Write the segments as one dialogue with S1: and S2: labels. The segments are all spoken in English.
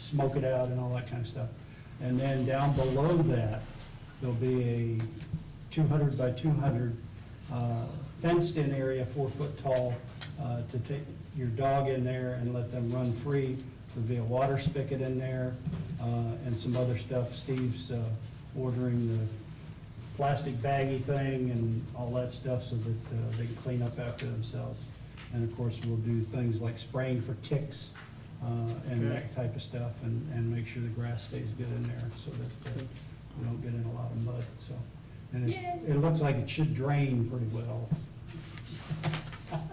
S1: smoke it out and all that kind of stuff. And then down below that, there'll be a 200 by 200 uh, fenced-in area, four foot tall, uh, to take your dog in there and let them run free. There'll be a water spigot in there uh, and some other stuff. Steve's uh, ordering the plastic baggy thing and all that stuff so that uh, they can clean up after themselves. And of course, we'll do things like spraying for ticks uh, and that type of stuff and, and make sure the grass stays good in there so that uh, we don't get in a lot of mud, so. And it,
S2: Yay.
S1: it looks like it should drain pretty well.
S3: Oh,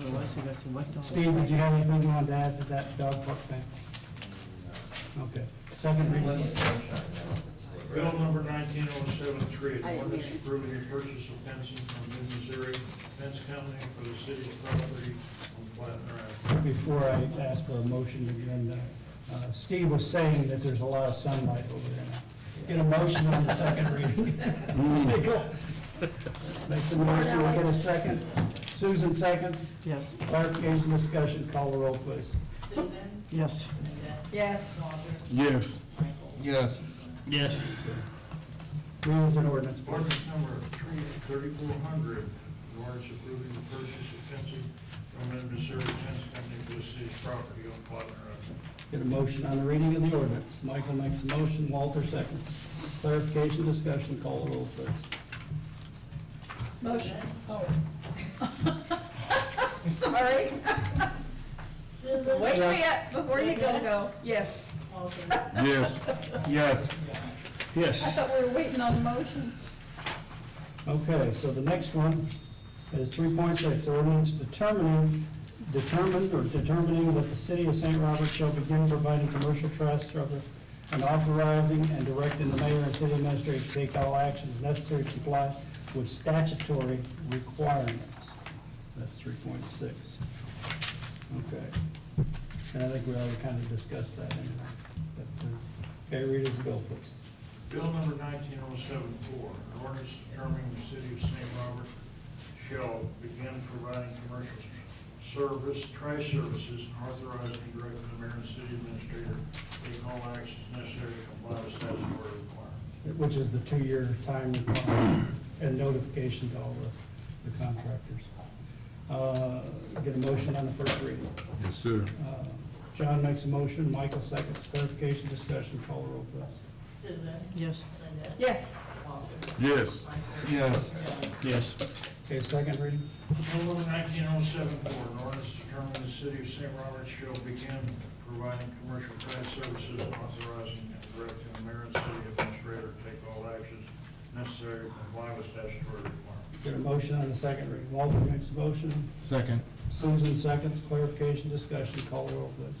S3: I see, I see, what dog?
S1: Steve, did you have anything you wanted to add to that dog park thing? Okay, second reading.
S4: Bill number nineteen oh seven three,
S2: I didn't hear
S4: ordinance
S2: it.
S4: approving the purchase of fencing from Mid Missouri Fence Company for the city property on Plattner Avenue.
S1: before I ask for a motion again, uh, Steve was saying that there's a lot of sunlight over there now. Get a motion on the second reading. Make the motion, we'll get a second. Susan seconds,
S3: Yes,
S1: clarification, discussion, call the roll, please.
S5: Susan?
S3: yes.
S2: Yes.
S5: Walter?
S6: Yes.
S5: Michael?
S6: Yes.
S3: Yes.
S1: Read as an ordinance, please.
S4: Ordinance number three thirty-four hundred, an ordinance approving the purchase of fencing from Mid Missouri Fence Company for the city property on Plattner Avenue.
S1: Get a motion on the reading of the ordinance. Michael makes a motion, Walter seconds. Clarification, discussion, call the roll, please.
S2: Motion. Sorry.
S5: Susan?
S2: Wait for it, before you go, go. Yes.
S5: Walter?
S6: Yes. Yes.
S2: I
S3: Yes.
S2: thought we were waiting on the motion.
S1: Okay, so the next one is three point six, ordinance determining, determined or determining that the city of St. Robert shall begin providing commercial trash service and authorizing and directing the mayor and city administrator to take all actions necessary to comply with statutory requirements. That's three point six. Okay. And I think we already kind of discussed that anyway. But, uh, Okay, read as a bill, please.
S4: Bill number nineteen oh seven four, an ordinance determining the city of St. Robert shall begin providing commercial service, trash services, and authorizing and directing the mayor and city administrator to take all actions necessary to comply with statutory requirements.
S1: which is the two-year time requirement and notification to all the the contractors. Uh, Get a motion on the first reading.
S6: Yes, sir.
S1: Uh, John makes a motion, Michael seconds, clarification, discussion, call the roll, please.
S5: Susan?
S3: Yes.
S5: Linda?
S2: Yes.
S5: Walter?
S6: Yes.
S5: Michael?
S6: Yes.
S5: John?
S3: Yes.
S1: Okay, second reading?
S4: Bill number nineteen oh seven four, an ordinance determining the city of St. Robert shall begin providing commercial trash services, and authorizing and directing the mayor and city administrator to take all actions necessary to comply with statutory requirements.
S1: Get a motion on the second reading. Walter makes a motion,
S6: Second.
S1: Susan seconds, clarification, discussion, call the roll, please.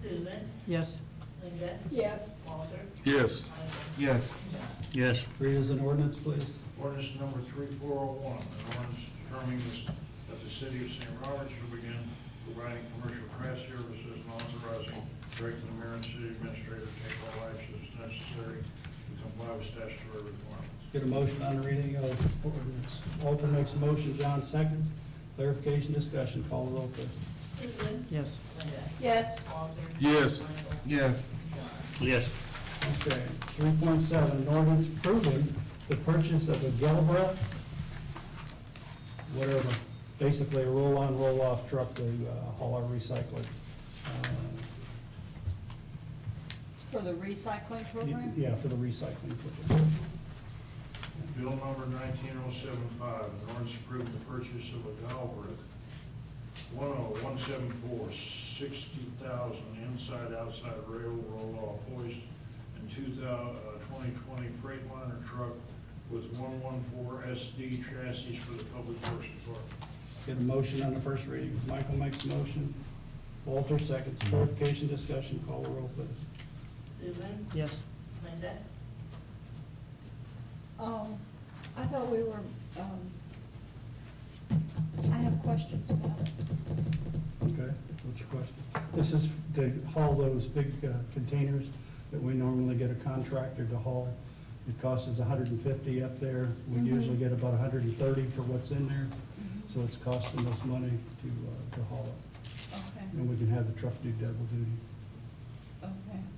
S5: Susan?
S3: Yes.
S5: Linda?
S2: Yes.
S5: Walter?
S6: Yes.
S5: Michael?
S6: Yes.
S5: John?
S3: Yes.
S1: Read as an ordinance, please.
S4: Ordinance number three four oh one, an ordinance determining this- that the city of St. Robert shall begin providing commercial trash services and authorizing directing the mayor and city administrator to take all actions necessary to comply with statutory requirements.
S1: Get a motion on the reading of the ordinance. Walter makes a motion, John seconds, clarification, discussion, call the roll, please.
S5: Susan?
S3: Yes.
S5: Linda?
S2: Yes.
S5: Walter?
S6: Yes.
S5: Michael?
S6: Yes.
S5: John?
S3: Yes.
S1: Okay, three point seven, an ordinance approving the purchase of a Galbra, whatever, basically a roll-on, roll-off truck to uh, haul our recycling. Uh,
S2: It's for the recycling program?
S1: Yeah, for the recycling. program.
S4: Bill number nineteen oh seven five, an ordinance approving the purchase of a Galbraith one oh one seven four, sixty thousand inside-outside rail roll-off hoist and two thou, uh, twenty twenty Freightliner truck with one one four SD chassis for the public works department.
S1: Get a motion on the first reading. Michael makes a motion. Walter seconds. Clarification, discussion, call the roll, please.
S5: Susan?
S3: Yes.
S5: Linda?
S2: Um, I thought we were, um, I have questions about it.
S1: Okay, what's your question? This is to haul those big uh, containers that we normally get a contractor to haul. It costs us hundred and fifty up there. We
S2: Mhm.
S1: usually get about hundred and thirty for what's in there, so it's costing us money to, uh, to haul it.
S2: Okay,
S1: And we can have the truck do double duty.
S2: okay.